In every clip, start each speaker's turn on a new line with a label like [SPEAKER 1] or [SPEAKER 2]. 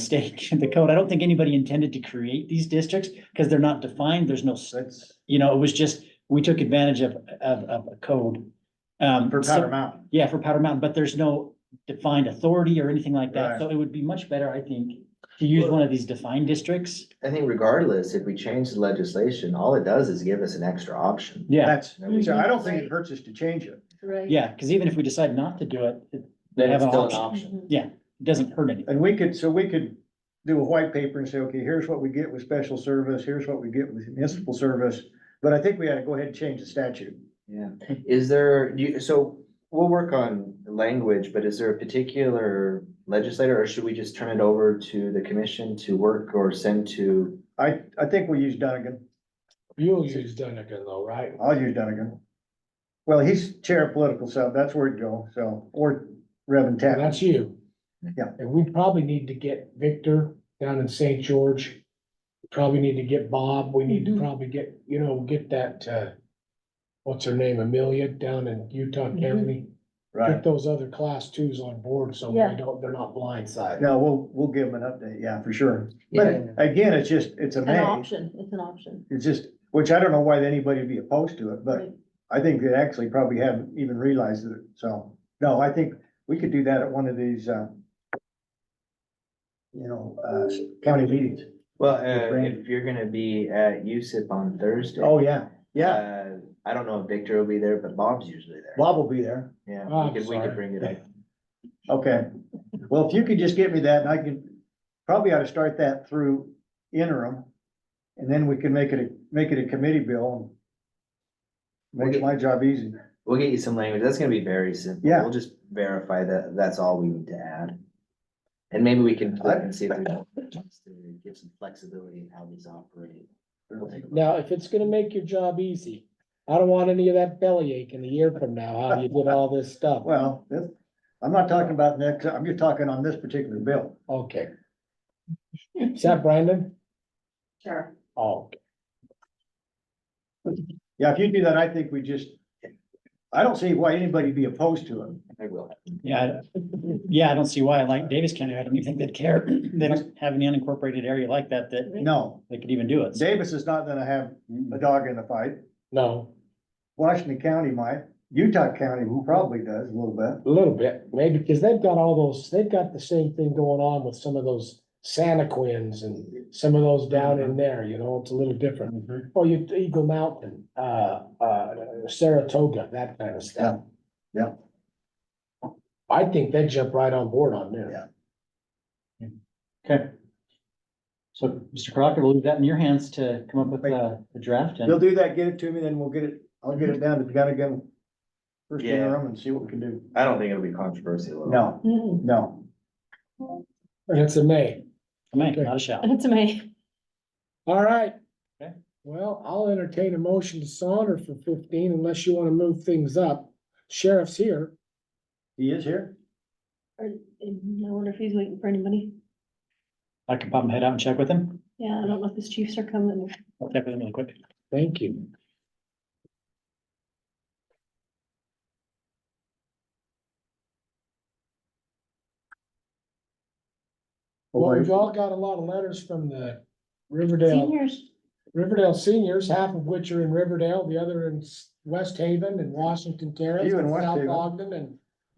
[SPEAKER 1] mistake in the code. I don't think anybody intended to create these districts because they're not defined. There's no, s-
[SPEAKER 2] That's
[SPEAKER 1] you know, it was just, we took advantage of, of, of a code. Um,
[SPEAKER 2] for
[SPEAKER 1] so-
[SPEAKER 2] Powder Mountain.
[SPEAKER 1] Yeah, for Powder Mountain, but there's no defined authority or anything like that.
[SPEAKER 2] Right.
[SPEAKER 1] So it would be much better, I think, to use one of these defined districts.
[SPEAKER 3] I think regardless, if we change the legislation, all it does is give us an extra option.
[SPEAKER 1] Yeah,
[SPEAKER 2] That's, so I don't think it hurts us to change it.
[SPEAKER 4] Right.
[SPEAKER 1] yeah, because even if we decide not to do it, it
[SPEAKER 5] Then
[SPEAKER 1] Have
[SPEAKER 5] it's
[SPEAKER 1] an
[SPEAKER 5] still an
[SPEAKER 1] option.
[SPEAKER 5] option.
[SPEAKER 4] Mhm.
[SPEAKER 1] it doesn't hurt anything.
[SPEAKER 2] And we could, so we could do a white paper and say, okay, here's what we get with special service, here's what we get with municipal service. But I think we ought to go ahead and change the statute.
[SPEAKER 3] Yeah, is there, do you, so we'll work on language, but is there a particular legislator or should we just turn it over to the commission to work or send to?
[SPEAKER 2] I, I think we'll use Donegan.
[SPEAKER 6] You'll use Dunigan though, right?
[SPEAKER 2] I'll use Donegan. Well, he's chair of political sub, that's where it'd go, so, or Reverend
[SPEAKER 6] And
[SPEAKER 2] Tappin.
[SPEAKER 6] That's you.
[SPEAKER 2] Yeah.
[SPEAKER 6] And we probably need to get Victor down in St. George. Probably need to get Bob. We need to
[SPEAKER 4] Mhm.
[SPEAKER 6] probably get, you know, get that, uh, what's her name, Amelia down in Utah
[SPEAKER 4] Mhm.
[SPEAKER 6] County.
[SPEAKER 2] Right.
[SPEAKER 6] Get those other class twos on board so
[SPEAKER 4] Yeah.
[SPEAKER 6] they don't, they're not blindsided.
[SPEAKER 2] No, we'll, we'll give him an update, yeah, for sure. But again, it's just, it's a
[SPEAKER 4] An
[SPEAKER 2] maze.
[SPEAKER 4] option, it's an option.
[SPEAKER 2] It's just, which I don't know why anybody would be opposed to it, but
[SPEAKER 4] Right.
[SPEAKER 2] I think they actually probably haven't even realized it, so. No, I think we could do that at one of these, uh, you know, uh, county meetings.
[SPEAKER 3] Well, uh, if you're gonna be at USIP on Thursday.
[SPEAKER 2] Oh, yeah, yeah.
[SPEAKER 3] Uh, I don't know if Victor will be there, but Bob's usually there.
[SPEAKER 2] Bob will be there.
[SPEAKER 3] Yeah,
[SPEAKER 6] Oh, I'm
[SPEAKER 3] we could, we
[SPEAKER 6] sorry.
[SPEAKER 3] could bring it up.
[SPEAKER 2] Okay. Well, if you could just get me that and I can, probably ought to start that through interim. And then we can make it, a make it a committee bill and make my job easy.
[SPEAKER 3] We'll get you some language. That's gonna be very simple.
[SPEAKER 2] Yeah.
[SPEAKER 3] We'll just verify that that's all we need to add. And maybe we can click and see if there's, give some flexibility in how these operate. We'll take a look.
[SPEAKER 6] Now, if it's gonna make your job easy, I don't want any of that bellyache in a year from now, how you did all this stuff.
[SPEAKER 2] Well, this- I'm not talking about next, I'm just talking on this particular bill.
[SPEAKER 6] Okay. Is that Brandon?
[SPEAKER 4] Sure.
[SPEAKER 6] Oh,
[SPEAKER 2] Yeah, if you do that, I think we just, I don't see why anybody'd be opposed to it.
[SPEAKER 3] I will.
[SPEAKER 1] Yeah, I- yeah, I don't see why. Like Davis County, I don't even think they'd care. They don't have any unincorporated area like that that
[SPEAKER 2] No,
[SPEAKER 1] they could even do it. So-
[SPEAKER 2] Davis is not gonna have a dog in the fight.
[SPEAKER 6] no,
[SPEAKER 2] Washington County might, Utah County who probably does a little bit.
[SPEAKER 6] a little bit, maybe, because they've got all those, they've got the same thing going on with some of those Santaquins and some of those down in there, you know, it's a little different. Or you, Eagle Mountain, uh, uh, Saratoga, that kind of stuff.
[SPEAKER 2] Yeah,
[SPEAKER 6] I think they jump right on board on there.
[SPEAKER 1] Okay. So, Mr. Crocker, we'll leave that in your hands to come up with a, a draft
[SPEAKER 2] You'll
[SPEAKER 1] and
[SPEAKER 2] do that, get it to me, then we'll get it, I'll get it down to Gunnigan. First
[SPEAKER 3] Yeah.
[SPEAKER 2] interim and see what we can do.
[SPEAKER 3] I don't think it'll be controversial. at all.
[SPEAKER 2] No,
[SPEAKER 4] Mm-hmm.
[SPEAKER 2] no.
[SPEAKER 6] And it's a May.
[SPEAKER 1] make, not a shout.
[SPEAKER 4] It's amazing.
[SPEAKER 6] All right.
[SPEAKER 1] Okay.
[SPEAKER 6] Well, I'll entertain a motion to saunter for fifteen unless you want to move things up. Sheriff's here.
[SPEAKER 2] He is here?
[SPEAKER 4] I wonder if he's waiting for anybody.
[SPEAKER 1] I can pop my head out and check with him.
[SPEAKER 4] Yeah, I don't know if his chiefs are coming.
[SPEAKER 1] I'll check with him really quick.
[SPEAKER 6] Thank you. Well, we've all got a lot of letters from the Riverdale,
[SPEAKER 4] Seniors,
[SPEAKER 6] Riverdale seniors, half of which are in Riverdale, the other in S- West Haven and Washington Terrace.
[SPEAKER 2] You in
[SPEAKER 6] and
[SPEAKER 2] West
[SPEAKER 6] South
[SPEAKER 2] Haven.
[SPEAKER 6] Ogden and,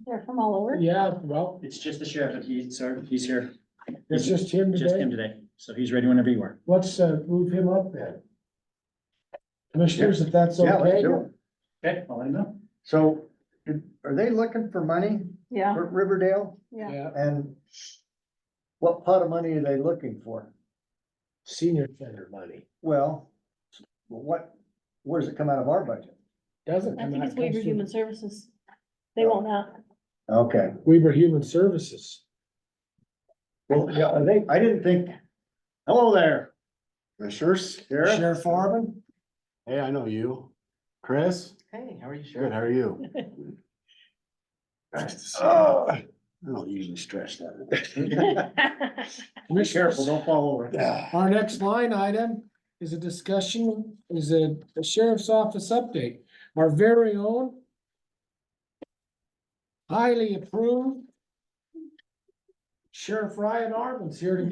[SPEAKER 4] they're from all over.
[SPEAKER 6] yeah, well,
[SPEAKER 1] It's just the sheriff that he's, sir, he's here.
[SPEAKER 6] it's just him today.
[SPEAKER 1] today. So he's ready whenever you are.
[SPEAKER 6] Let's, uh, move him up then. Commissioners, if that's
[SPEAKER 2] Yeah, let's
[SPEAKER 6] okay.
[SPEAKER 2] do it.
[SPEAKER 1] Okay, I'll let him know.
[SPEAKER 2] So, are they looking for money
[SPEAKER 4] Yeah,
[SPEAKER 2] for Riverdale?
[SPEAKER 4] yeah.
[SPEAKER 6] Yeah,
[SPEAKER 2] And what pot of money are they looking for?
[SPEAKER 6] senior center money.
[SPEAKER 2] Well, what, where does it come out of our budget?
[SPEAKER 6] Doesn't.
[SPEAKER 4] I
[SPEAKER 6] come
[SPEAKER 4] think
[SPEAKER 6] out-
[SPEAKER 4] it's Weaver
[SPEAKER 6] comes through-
[SPEAKER 4] Human Services. They won't have.
[SPEAKER 2] Okay,
[SPEAKER 6] Weaver Human Services.
[SPEAKER 2] well, yeah, I think, I didn't think, hello there.
[SPEAKER 7] Commissioners,
[SPEAKER 2] Sheriff.
[SPEAKER 6] Sheriff Farman?
[SPEAKER 7] hey, I know you. Chris,
[SPEAKER 3] Hey, how are you, Sheriff?
[SPEAKER 7] good, how are you? Nice to see you.
[SPEAKER 2] Oh,
[SPEAKER 7] I don't usually stretch that.
[SPEAKER 2] Be careful, don't fall over.
[SPEAKER 7] Yeah.
[SPEAKER 6] Our next line item is a discussion, is a a sheriff's office update. Our very own highly approved Sheriff Ryan Arvin's here to